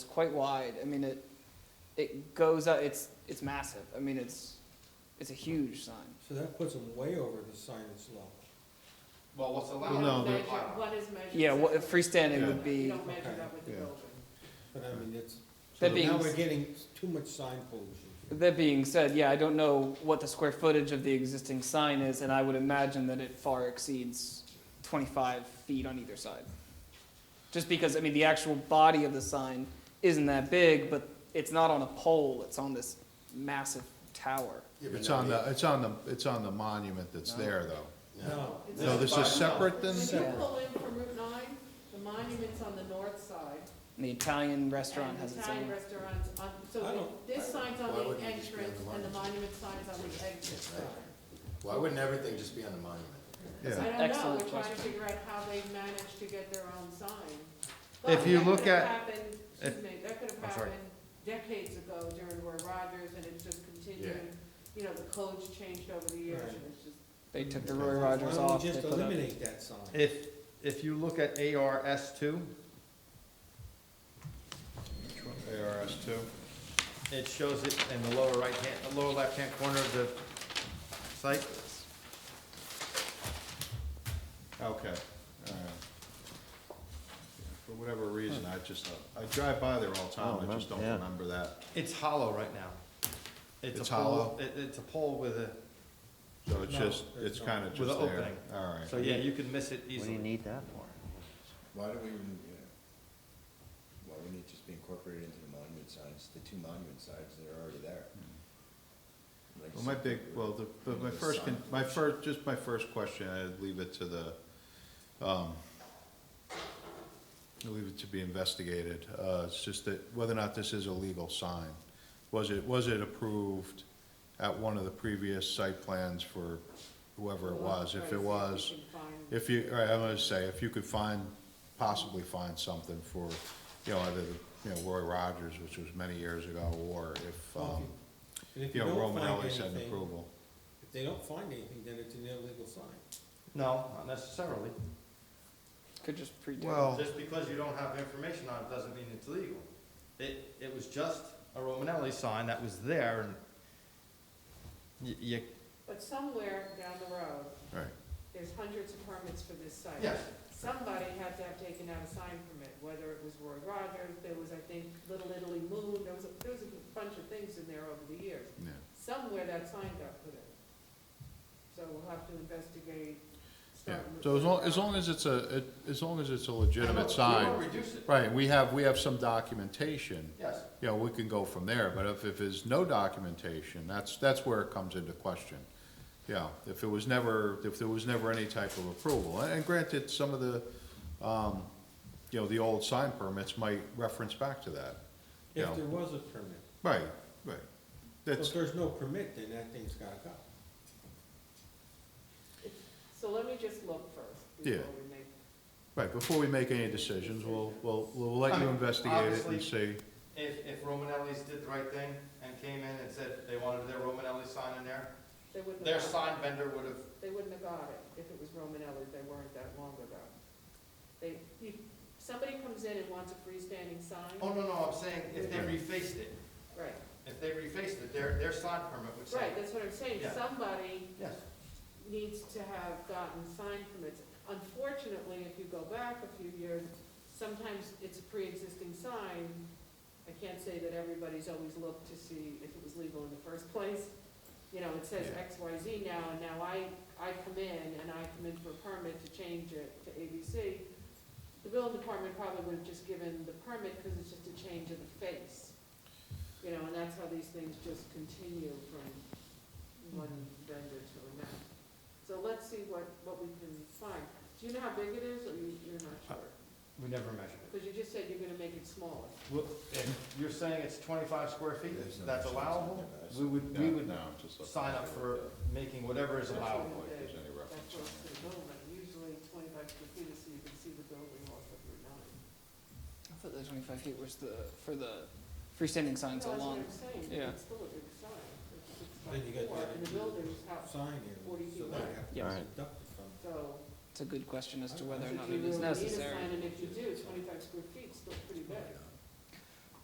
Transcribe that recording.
quite wide. I mean, it, it goes up, it's, it's massive. I mean, it's, it's a huge sign. So that puts them way over the signage level. Well, what's You allowed? don't no, on the they're- measure, bylaw. what is measured. Yeah, well, separately. freestanding Yeah. would You be, don't measure that with the Yeah. building. But I mean, it's, That so being now s- we're getting s- too much sign pollution. here. that being said, yeah, I don't know what the square footage of the existing sign is, and I would imagine that it far exceeds twenty-five feet on either side. Just because, I mean, the actual body of the sign isn't that big, but it's not on a pole, it's on this massive tower. Yeah, but It's now on the, it's on the, it's on the monument that's there, though. No, It's No, not- this is separate than, When you Separate. pull in from Route nine, the monument's on the north side. And the Italian restaurant and the has its Italian own. restaurants on, I so don't- this sign's on Why the wouldn't it just be on entrance the and the monument? monument sign's on the exit. Right. Why wouldn't everything just be on the monument? I yeah. don't know, Excellent we're trying question. to figure out how they managed to get their own sign. If But you that look could've at- happened- Excuse me, that could have I'm sorry. happened decades ago during Roy Rogers and it's just continued. You know, the codes changed over the years Right. and it's just. They took the Okay. Roy why Rogers don't off. we just they put up- eliminate that sign? If, if you look at ARS two, ARS two. it shows it in the lower right hand, the lower left hand corner of the site. Okay, all right. For whatever reason, I just, uh, I drive by there all the time, I just don't remember that. It's hollow right now. It's a pole- hollow? It, it's a pole with a, So it's No, just, there's it's no- kinda With just an there, opening. all so right. yeah, you could miss it easily. need that for? Why do we even, yeah, why wouldn't it just be incorporated into the monument signs, the two monument signs that are already there? Like Hmm. Well, my big, well, the, but my The first, con- sign. my first, just my first question, I'd leave it to the, um, I'd leave it to be investigated, uh, it's just that whether or not this is a legal sign. Was it, was it approved at one of the previous site plans for whoever it was? If it was, if you, all right, I'm gonna say, if you could find, possibly find something for, you know, either, the you know, Roy Rogers, which was many years ago, or if, um, And if you know, don't find Romanelli sent anything- approval. If they don't find anything, then it's an illegal sign. No, not necessarily. Could just predate. Well, Just because you don't have information on it doesn't mean it's legal. It, it was just a Romanelli sign that was there and y- you, But somewhere down the road, right. there's hundreds of permits for this site. yes, Somebody had to have taken out a sign permit, whether it was Roy Rogers, there was, I think, Little Italy Moon, there was, a- there was a bunch of things in there over the years. Yeah. Somewhere that sign got put in. So we'll have to investigate. Yeah, start so as long, looking as long as it's a, it- as long as it's a legitimate You don't sign, reduce it, right, we have, we have some documentation, yes. you know, we can go from there, but if, if there's no documentation, that's, that's where it comes into question. Yeah, if it was never, if there was never any type of approval, and granted, some of the, um, you know, the old sign permits might reference back to that. you know. If there was a permit. Right, right, Well, that's, If there's no permit, then that thing's gotta go. So let me just look first. Yeah. before we make- right, before we make any decisions, we'll, we'll, we'll let you investigate it and see. If, if Romanelli's did the right thing and came in and said they wanted their Romanelli sign in there, They wouldn't their have, got- sign vendor would have, they wouldn't have got it if it was Romanelli, they weren't that long ago. They, you, somebody comes in and wants a freestanding oh, sign, no, no, I'm saying if they refaced it, right, if they refaced it, their, their sign permit would say, right, that's what I'm saying, Yeah. somebody yes. needs to have gotten sign permits. Unfortunately, if you go back a few years, sometimes it's a pre-existing sign. I can't say that everybody's always looked to see if it was legal in the first place. You know, it says Yeah. X, Y, Z now, and now I, I come in and I come in for a permit to change it to ABC. The building department probably would have just given the permit because it's just a change of the face. You know, and that's how these things just continue from one vendor to another. So let's see what, what we can find. Do you know how big it is, or you, you're not sure? Uh, We never measured it. Because you just said you're gonna make it smaller. Well, if you're saying it's twenty-five square feet, There's no that's signs on allowable, there, guys. we would, we Yeah, would no, just look. sign up for making whatever is allowable. Like, there's any reference That's on what's it. the building, usually twenty-five square feet is so you can see the building off of Route nine. I thought the twenty-five feet was the, for the freestanding signs No, along. That's what I'm saying, yeah. it's still a big sign. It's a Then big you got the sign. other And the two. building's house, Sign here, 40 feet so wide. they have to Yeah. be deducted from it. so. It's a good question as to I- I whether or think not if you it is really need a necessary. sign, And if you do, twenty-five square feet's still pretty big.